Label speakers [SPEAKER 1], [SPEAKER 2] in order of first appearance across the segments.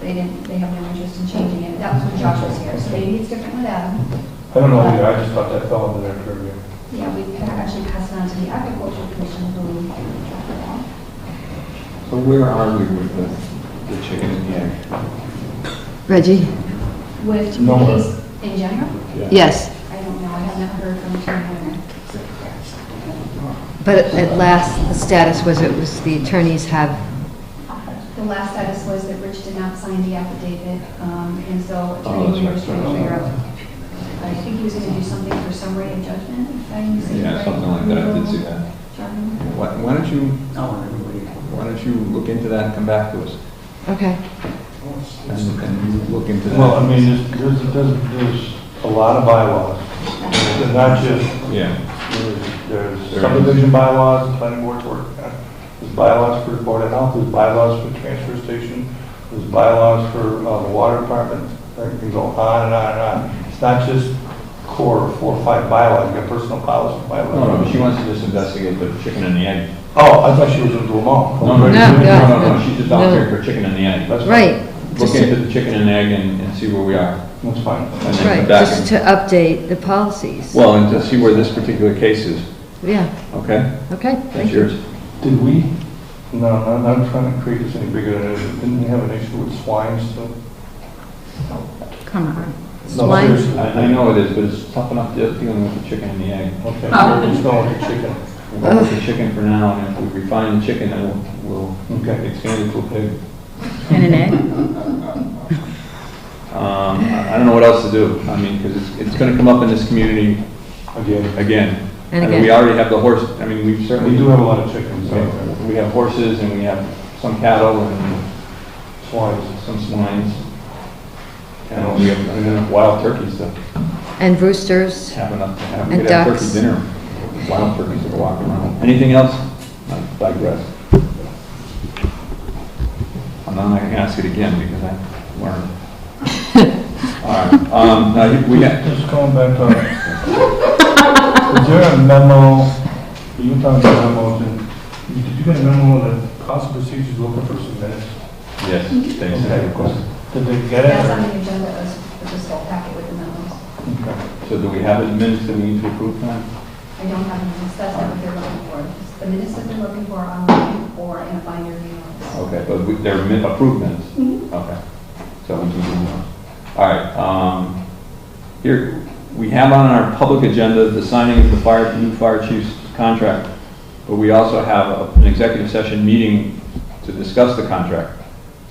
[SPEAKER 1] They didn't, they have no interest in changing it. That was when Josh was here, so maybe it's different with Adam.
[SPEAKER 2] I don't know either, I just thought that fell under their purview.
[SPEAKER 1] Yeah, we can actually pass it on to the agricultural commission who drafted it out.
[SPEAKER 3] So where are we with the, the chicken and the egg?
[SPEAKER 4] Reggie?
[SPEAKER 1] With the
[SPEAKER 2] No.
[SPEAKER 1] case in general?
[SPEAKER 4] Yes,
[SPEAKER 1] I don't know, I have not heard from Tim Warner.
[SPEAKER 4] but at last, the status was it was the attorneys have,
[SPEAKER 1] The last status was that Rich did not sign the affidavit, um, and so
[SPEAKER 3] Oh, that's
[SPEAKER 1] attorney Warner was
[SPEAKER 3] right,
[SPEAKER 1] trying to
[SPEAKER 3] sorry.
[SPEAKER 1] figure out. I think he was going to do something for summary and judgment, if I didn't see.
[SPEAKER 3] Yeah, something like that, I did see that. Why, why don't you, why don't you look into that and come back to us?
[SPEAKER 4] okay.
[SPEAKER 3] And, and you look into that.
[SPEAKER 2] Well, I mean, there's- there's, there's, there's a lot of bylaws. It's not just,
[SPEAKER 3] Yeah,
[SPEAKER 2] there's- there's subdivision bylaws, planning board's work, on. there's bylaws for the board of health, there's bylaws for transfer station, there's bylaws for, uh, the water department, it can go on and on and on. It's not just core four or five bylaws, you got personal policy
[SPEAKER 3] no, no,
[SPEAKER 2] bylaws.
[SPEAKER 3] she wants to just investigate the chicken and the egg.
[SPEAKER 2] Oh, I thought she was into them all.
[SPEAKER 3] No, no,
[SPEAKER 4] No, no,
[SPEAKER 3] no, no,
[SPEAKER 4] Oh, no,
[SPEAKER 3] she's just out there
[SPEAKER 4] no.
[SPEAKER 3] for chicken and the egg. Let's
[SPEAKER 4] Right,
[SPEAKER 3] Look
[SPEAKER 4] Just-
[SPEAKER 3] into the chicken and egg and, and see where we are.
[SPEAKER 2] That's fine.
[SPEAKER 3] and then come
[SPEAKER 4] right,
[SPEAKER 3] back
[SPEAKER 4] just
[SPEAKER 3] and-
[SPEAKER 4] to update the policies.
[SPEAKER 3] Well, and to see where this particular case is,
[SPEAKER 4] Yeah,
[SPEAKER 3] okay?
[SPEAKER 4] okay,
[SPEAKER 3] That's
[SPEAKER 4] thank you.
[SPEAKER 3] yours.
[SPEAKER 2] Did we? No, I'm not trying to create this any bigger than it is. Didn't we have an issue with swine still?
[SPEAKER 4] Come on.
[SPEAKER 2] No,
[SPEAKER 4] Swine?
[SPEAKER 2] seriously.
[SPEAKER 3] I, I know it is, but it's tough enough de- dealing with the chicken and the egg.
[SPEAKER 2] Okay, so we're just going with the chicken.
[SPEAKER 3] We'll go with the chicken for now, and if we refine the chicken, then we'll, we'll
[SPEAKER 2] Okay.
[SPEAKER 3] expand it to a pig.
[SPEAKER 4] And an egg?
[SPEAKER 3] Um, I I don't know what else to do, I mean, because it's, it's gonna come up in this community
[SPEAKER 2] Again,
[SPEAKER 3] again.
[SPEAKER 4] And
[SPEAKER 3] I mean, We
[SPEAKER 4] again.
[SPEAKER 3] already have the horse, I mean, we've certainly.
[SPEAKER 2] we do have a lot of chickens, so
[SPEAKER 3] We have horses, and we have some cattle, and
[SPEAKER 2] swine.
[SPEAKER 3] some swines. And we have we have enough wild turkeys to
[SPEAKER 4] And roosters?
[SPEAKER 3] have enough, to have, we
[SPEAKER 4] And
[SPEAKER 3] could have turkey
[SPEAKER 4] ducks.
[SPEAKER 3] dinner. Wild turkeys that are walking around. Anything else? I digress. I'm not gonna ask it again, because I learned. All right, um, now, you- we have,
[SPEAKER 2] Just going back to, is there a memo, you were talking about memos, and did you get a memo that council procedures looking for some minutes?
[SPEAKER 3] Yes, thanks. I have a question.
[SPEAKER 2] Did they get
[SPEAKER 1] That's on
[SPEAKER 2] it?
[SPEAKER 1] the agenda, it was, it was all packet with the memos.
[SPEAKER 2] or- Okay.
[SPEAKER 3] So do we have the minutes that we need to approve now?
[SPEAKER 1] I don't have the minutes, that's not what they're looking for. The minutes that they're looking for are online or in a binder email.
[SPEAKER 3] Okay, but we- they're min- approved minutes? Okay. So we can move on. All right, um, here, we have on our public agenda the signing of the fire, new fire chief's contract, but we also have a- an executive session meeting to discuss the contract.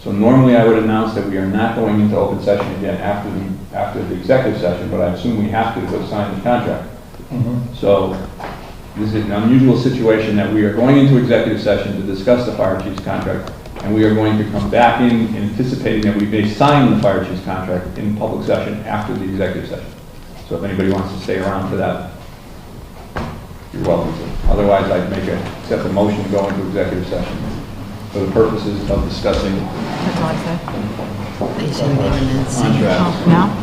[SPEAKER 3] So normally I would announce that we are not going into open session again after the, after the executive session, but I assume we have to go sign the contract.
[SPEAKER 2] Mhm.
[SPEAKER 3] So this is an unusual situation that we are going into executive session to discuss the fire chief's contract, and we are going to come back in anticipating that we may sign the fire chief's contract in public session after the executive session. So if anybody wants to stay around for that, you're welcome to. Otherwise, I'd make a, accept a motion to go into executive session for the purposes of discussing
[SPEAKER 4] That's all I said. Are you saying the minutes?
[SPEAKER 3] Contract.
[SPEAKER 4] No?